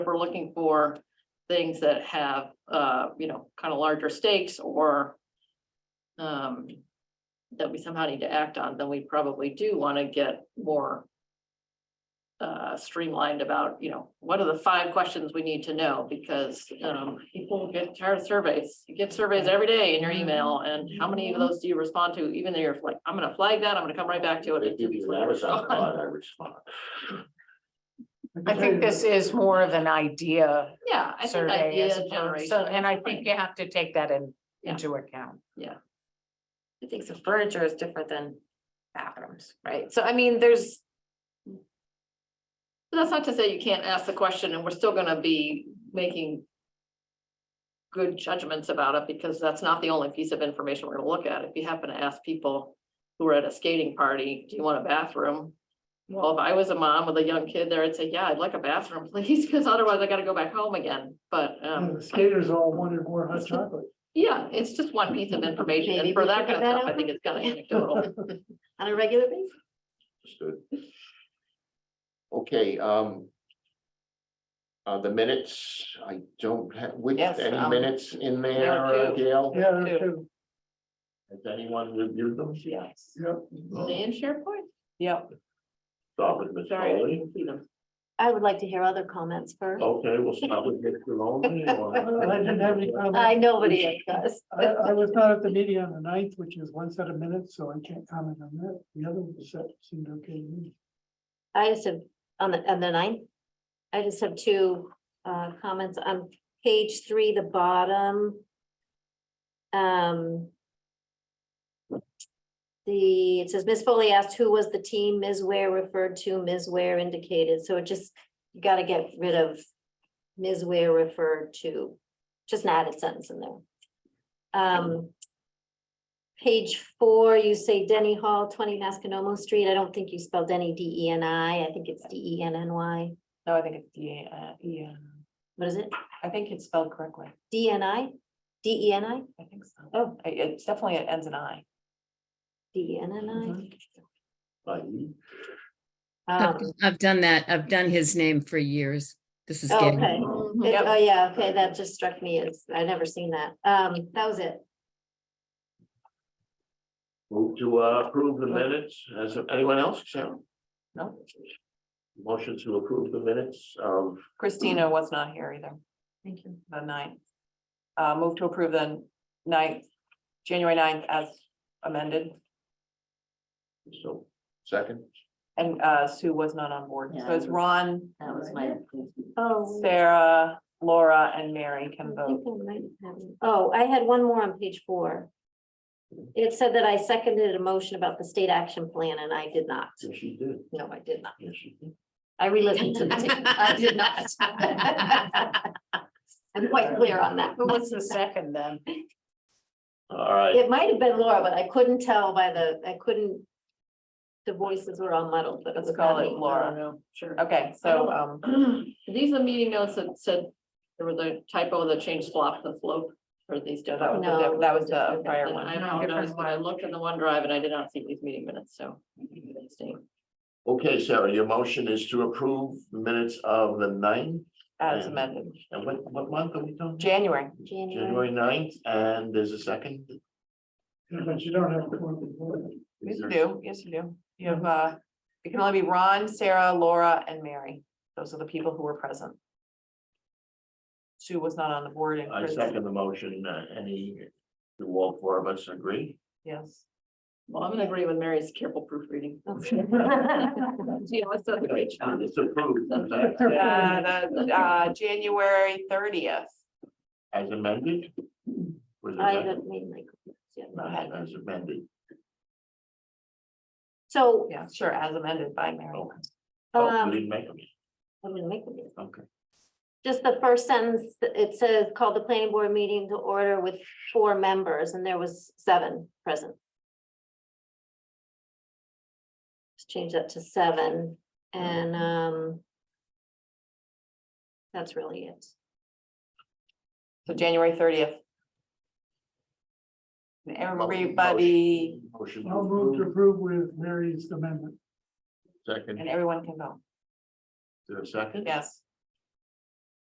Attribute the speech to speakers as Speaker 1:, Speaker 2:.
Speaker 1: we're looking for things that have, uh, you know, kind of larger stakes or um, that we somehow need to act on, then we probably do want to get more uh, streamlined about, you know, what are the five questions we need to know? Because, um, people get tired of surveys. You get surveys every day in your email
Speaker 2: Mm-hmm.
Speaker 1: and how many of those do you respond to? Even though you're like, I'm gonna flag that, I'm gonna come right back to it.
Speaker 3: They
Speaker 1: and two
Speaker 3: give
Speaker 1: weeks
Speaker 3: you an
Speaker 1: later it's
Speaker 3: Amazon
Speaker 1: gone.
Speaker 3: card, I respond.
Speaker 2: I think this is more of an idea
Speaker 1: Yeah, I think
Speaker 2: survey as
Speaker 1: idea
Speaker 2: opposed,
Speaker 1: generation.
Speaker 2: so, and I
Speaker 1: is
Speaker 2: think
Speaker 1: fine.
Speaker 2: you have to take that in,
Speaker 1: Yeah.
Speaker 2: into account.
Speaker 4: I think so furniture is different than bathrooms, right? So I mean, there's,
Speaker 1: But That's not to say you can't ask the question and we're still gonna be making good judgments about it because that's not the only piece of information we're gonna look at. If you happen to ask people who are at a skating party, do you want a bathroom? Well, if I was a mom with a young kid there, I'd say, yeah, I'd like a bathroom, please, because otherwise I gotta go back home again. But, um,
Speaker 5: The skaters all wanted more hot chocolate.
Speaker 1: yeah, it's just one piece of information and
Speaker 6: Maybe
Speaker 1: for
Speaker 6: we
Speaker 1: that
Speaker 6: should
Speaker 1: kind
Speaker 6: put
Speaker 1: of
Speaker 6: that
Speaker 1: stuff, I
Speaker 6: out
Speaker 1: think it's kind of anecdotal.
Speaker 6: on a regular basis.
Speaker 3: Understood. Okay, um. Uh, the minutes, I don't have, which,
Speaker 4: Yes,
Speaker 3: any
Speaker 4: um,
Speaker 3: minutes in
Speaker 1: there
Speaker 3: there,
Speaker 1: are
Speaker 3: uh,
Speaker 1: two.
Speaker 3: Gail?
Speaker 5: Yeah, there too.
Speaker 3: Has anyone reviewed them?
Speaker 1: Yes.
Speaker 5: Yep.
Speaker 1: They in SharePoint?
Speaker 3: Start with Ms.
Speaker 1: Sorry, I
Speaker 3: Foley.
Speaker 1: didn't see them.
Speaker 6: I would like to hear other comments
Speaker 5: Oh,
Speaker 6: first.
Speaker 3: Okay, we'll start with Ms. Maloney. or-
Speaker 5: I didn't have any comments.
Speaker 6: I, nobody else does.
Speaker 5: I, I was not at the meeting on the ninth, which is one set of minutes, so I can't comment on that. The other one set seemed okay to me.
Speaker 6: I just have, on the, on the ninth, I just have two uh comments on page three, the bottom. Um. The, it says Ms. Foley asked who was the team, Ms. Ware referred to, Ms. Ware indicated, so it just, you gotta get rid of. Ms. Ware referred to, just an added sentence in there. Um. Page four, you say Denny Hall, twenty Masconomo Street. I don't think you spelled Denny D E N I. I think it's D E N N Y.
Speaker 4: no, I think it's, yeah, uh, yeah,
Speaker 6: What is it?
Speaker 4: I think it's spelled correctly.
Speaker 6: D E N I? D E N I?
Speaker 4: I think so.
Speaker 6: Oh.
Speaker 4: I- It's definitely, it ends in I.
Speaker 6: D E N
Speaker 4: Mm-hmm.
Speaker 6: N
Speaker 3: By you.
Speaker 6: I?
Speaker 7: I've,
Speaker 6: Um,
Speaker 7: I've done that. I've done his name for years. This is
Speaker 6: oh,
Speaker 7: getting,
Speaker 6: Okay.
Speaker 1: Mhm.
Speaker 6: It-
Speaker 4: Yep.
Speaker 6: Oh, yeah, okay, that just struck me as, I never seen that. Um, that was it.
Speaker 3: Move to uh, approve the minutes. Has anyone else, Sarah?
Speaker 4: No,
Speaker 3: Motion to approve the minutes of,
Speaker 4: Christina was not here either,
Speaker 6: Thank you.
Speaker 4: the ninth. Uh, move to approve the ninth, January 9th as amended,
Speaker 3: so, second,
Speaker 4: and, uh, Sue was not on board.
Speaker 6: Yeah,
Speaker 4: So it's
Speaker 6: I was-
Speaker 4: Ron,
Speaker 6: That was my. Oh.
Speaker 4: Sarah, Laura, and Mary
Speaker 6: I
Speaker 4: can
Speaker 6: think
Speaker 4: vote.
Speaker 6: I might have it. Oh, I had one more on page four. It said that I seconded a motion about the state action plan and I did not.
Speaker 3: yes, she did,
Speaker 6: No, I did not.
Speaker 3: yes, she did.
Speaker 6: I re-listened to the tape. I did not. I'm quite clear on that.
Speaker 2: Who was the second then?
Speaker 3: All right,
Speaker 6: It might have been Laura, but I couldn't tell by the, I couldn't. The voices were all muddled, but it
Speaker 4: Let's
Speaker 6: was
Speaker 4: call
Speaker 6: not
Speaker 4: it
Speaker 6: me.
Speaker 4: Laura.
Speaker 1: Sure.
Speaker 4: Okay, so, um,
Speaker 1: These are meeting notes that said there was a typo that changed slop to slope or these.
Speaker 4: No, that was
Speaker 1: don't-
Speaker 4: the- that
Speaker 1: uh,
Speaker 4: was the
Speaker 6: No.
Speaker 4: prior one.
Speaker 1: I don't know, when I looked in the OneDrive and I did not see these meeting minutes, so.
Speaker 3: okay, Sarah, your motion is to approve the minutes of the ninth,
Speaker 4: as amended,
Speaker 3: and what, what month are we talking?
Speaker 4: January.
Speaker 6: January.
Speaker 3: January ninth, and there's a second.
Speaker 5: Yeah, But you don't have to point the board.
Speaker 4: Yes,
Speaker 3: Is
Speaker 4: you
Speaker 3: there-
Speaker 4: do, yes, you do. You have, uh, it can only be Ron, Sarah, Laura, and Mary. Those are the people who were present. Sue was not on the board and
Speaker 3: I
Speaker 4: Chris,
Speaker 3: second the motion, uh, any, do all four of us agree?
Speaker 4: yes.
Speaker 1: Well, I'm gonna agree with Mary's careful proofreading. You know, it's a great job.
Speaker 3: It's approved, is that
Speaker 4: Uh, the, uh, January thirtieth.
Speaker 3: as amended? Was it
Speaker 6: I
Speaker 3: amended?
Speaker 6: haven't made my. yeah.
Speaker 3: Not As amended,
Speaker 6: So,
Speaker 4: Yeah, sure, as amended by Mary.
Speaker 3: Okay. oh, we
Speaker 6: um,
Speaker 3: didn't make them,
Speaker 6: I'm gonna make them.
Speaker 3: okay,
Speaker 6: Just the first sentence, it says, call the planning board meeting to order with four members, and there was seven present. Let's Change that to seven, and, um. That's really it.
Speaker 4: So January thirtieth. Everybody,
Speaker 3: motion. to
Speaker 5: I'll move to
Speaker 3: approve,
Speaker 5: approve with Mary's amendment.
Speaker 3: Second,
Speaker 4: and everyone can vote,
Speaker 3: to a second?
Speaker 4: yes.